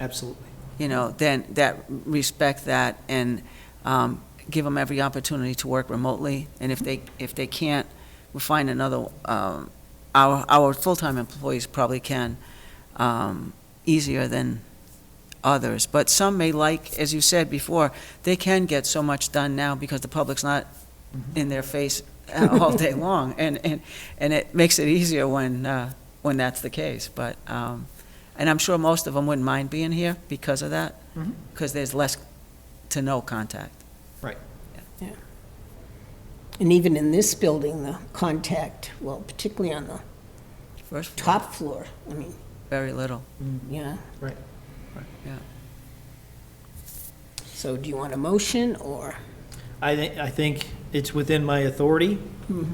Absolutely. you know, then that, respect that and um, give them every opportunity to work remotely. And if they, if they can't, we'll find another, um, our, our full-time employees probably can, um, easier than others. But some may like, as you said before, they can get so much done now because the public's not in their face all day long. And, and, and it makes it easier when, uh, when that's the case. But, um, and I'm sure most of them wouldn't mind being here because of that, Mhm. because there's less to no contact. Right. And even in this building, the contact, well, particularly on the First floor, top floor, I mean, very little. yeah. Right. Yeah. So do you want a motion or? I think, I think it's within my authority.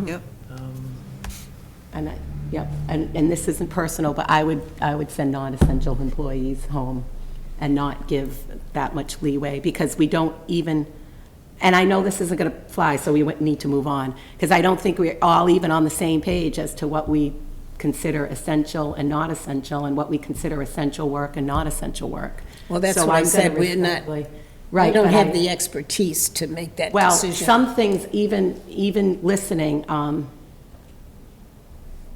Yep. Um, And I, yep, and, and this isn't personal, but I would, I would send non-essential employees home and not give that much leeway, because we don't even, and I know this isn't gonna fly, so we would need to move on, because I don't think we're all even on the same page as to what we consider essential and not essential, and what we consider essential work and not essential work. Well, that's So what I I'm gonna said, we're not- respectfully- We Right, don't but I- have the expertise to make that well, decision. some things, even, even listening, um,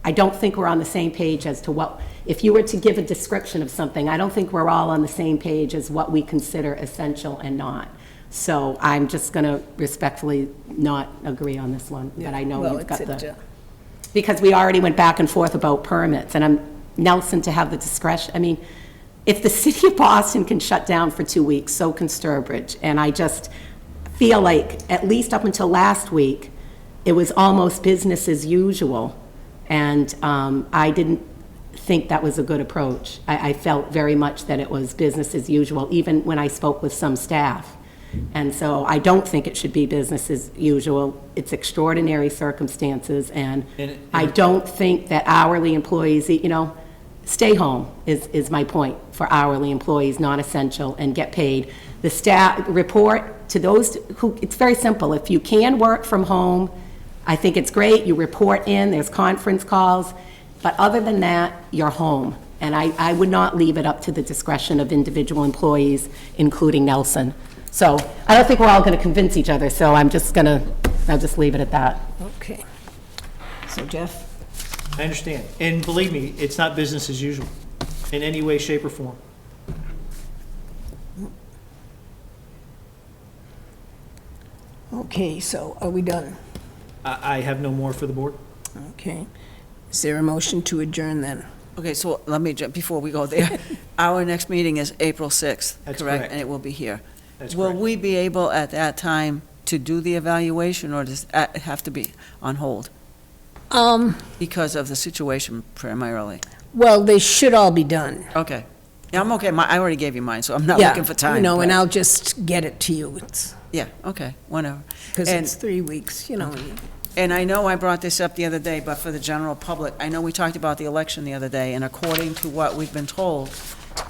I don't think we're on the same page as to what, if you were to give a description of something, I don't think we're all on the same page as what we consider essential and not. So I'm just going to respectfully not agree on this one, but I know Well, you've got it's a- uh, the, because we already went back and forth about permits, and I'm, Nelson to have the discretion, I mean, if the city of Boston can shut down for two weeks, so can Sturbridge. And I just feel like, at least up until last week, it was almost business as usual. And um, I didn't think that was a good approach. I, I felt very much that it was business as usual, even when I spoke with some staff. And so I don't think it should be business as usual. It's extraordinary circumstances, and And it- I don't think that hourly employees, you know, stay home is, is my point for hourly employees, non-essential, and get paid. The staff, report to those who, it's very simple. If you can work from home, I think it's great. You report in, there's conference calls, but other than that, you're home. And I, I would not leave it up to the discretion of individual employees, including Nelson. So I don't think we're all going to convince each other, so I'm just going to, I'll just leave it at that. uh, Okay. So Jeff? I understand. And believe me, it's not business as usual in any way, shape, or form. Okay, so are we done? I, I have no more for the board. Okay. Is there a motion to adjourn then? Okay, so let me, ju- before we go there, our next meeting is April 6th, That's correct. correct? And it will be here. That's Will correct. we be able at that time to do the evaluation or does that have to be on hold Um, because of the situation primarily? well, they should all be done. Okay. Yeah, I'm okay. My, I already gave you mine, so I'm not Yeah, looking for time. You know, and but- I'll just get it to you. It's, Yeah, okay, whenever. because And- it's three weeks, you know. and- And I know I brought this up the other day, but for the general public, I know we talked about the election the other day, and according to what we've been told,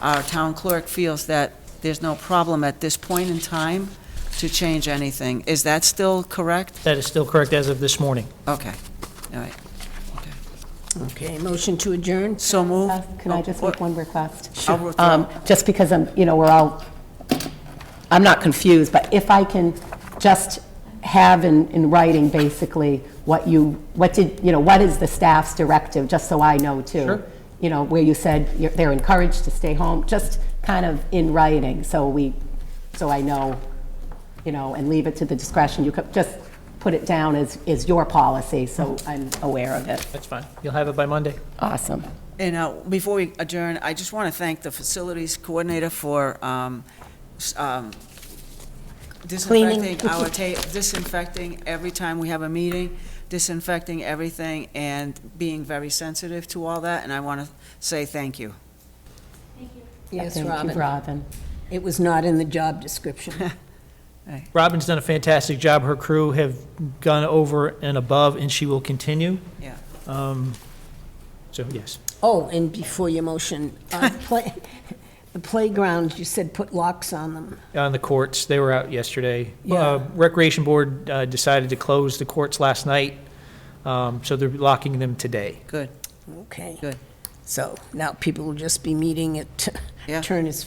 our town clerk feels that there's no problem at this point in time to change anything. Is that still correct? That is still correct as of this morning. Okay, all right. Okay, motion to adjourn? So move. Uh, Can I just make one request? Oh, Sure. I'll withdraw. Um, Just because I'm, you know, we're all, I'm not confused, but if I can just have in, in writing basically what you, what did, you know, what is the staff's directive, just so I know too? Sure. You know, where you said you're- they're encouraged to stay home, just kind of in writing, so we, so I know, you know, and leave it to the discretion. You could just put it down as, is your policy, so I'm aware of it. That's fine. You'll have it by Monday. Awesome. And uh, before we adjourn, I just want to thank the facilities coordinator for um, s- um, disinfecting our ta, disinfecting every time we have a meeting, disinfecting everything, and being very sensitive to all that, and I want to say thank you. Yes, Thank you, Robin. Robin. It was not in the job description. Robin's done a fantastic job. Her crew have gone over and above, and she will continue. Yeah. Um, So, yes. Oh, and before your motion, uh, play- the playgrounds, you said put locks on them. On the courts, they were out yesterday. Yeah. Uh, Recreation Board uh, decided to close the courts last night, um, so they're locking them today. Good. Okay. Good. So now people will just be meeting at Yeah. Turner's